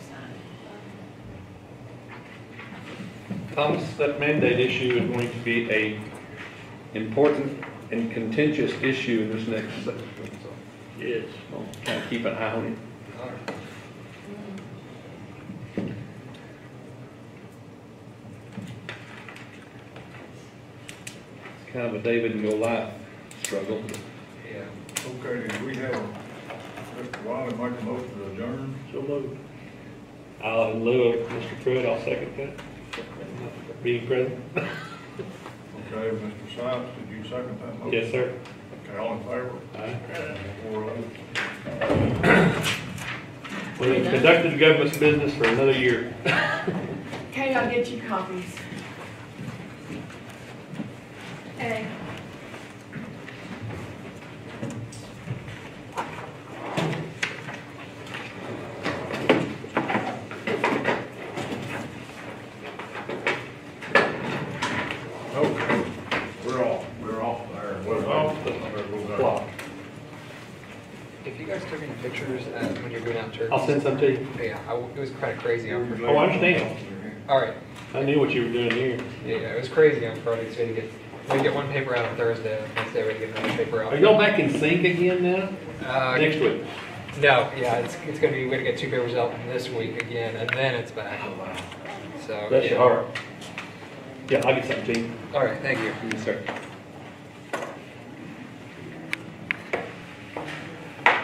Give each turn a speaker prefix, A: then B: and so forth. A: Thomas, that mandate issue is going to be a important and contentious issue in this next session, so
B: Yes.
A: I'll try to keep an eye on it. It's kind of a David and Goliath struggle.
B: Yeah.
C: Okay, do we have Mr. Wiley make a motion to adjourn?
B: So moved. I'll, in lieu of Mr. Pruitt, I'll second that. Being present?
C: Okay, Mr. Sykes, did you second that motion?
B: Yes, sir.
C: Okay, all in favor?
B: Aye.
C: Four oh.
B: We have conducted the government's business for another year.
D: Kate, I'll get you copies. Hey.
C: Okay, we're off, we're off there. We're off the
B: Clock.
E: If you guys took any pictures uh, when you're going out turkeys,
B: I'll send some to you.
E: yeah, I w it was kind of crazy. On Friday.
B: Oh, I understand.
E: All right,
B: I knew what you were doing here.
E: yeah, it was crazy on Friday. So we had to get we had to get one paper out on Thursday. and Wednesday we had to get another paper out.
B: Are y'all back in sync again now?
E: Uh,
B: Next week?
E: No, yeah, it's it's gonna be we gotta get two papers out this week again, and then it's back. Oh wow. So
B: That's
E: yeah.
B: your heart. Yeah, I'll get something to you.
E: All right, thank you.
B: Yes, sir.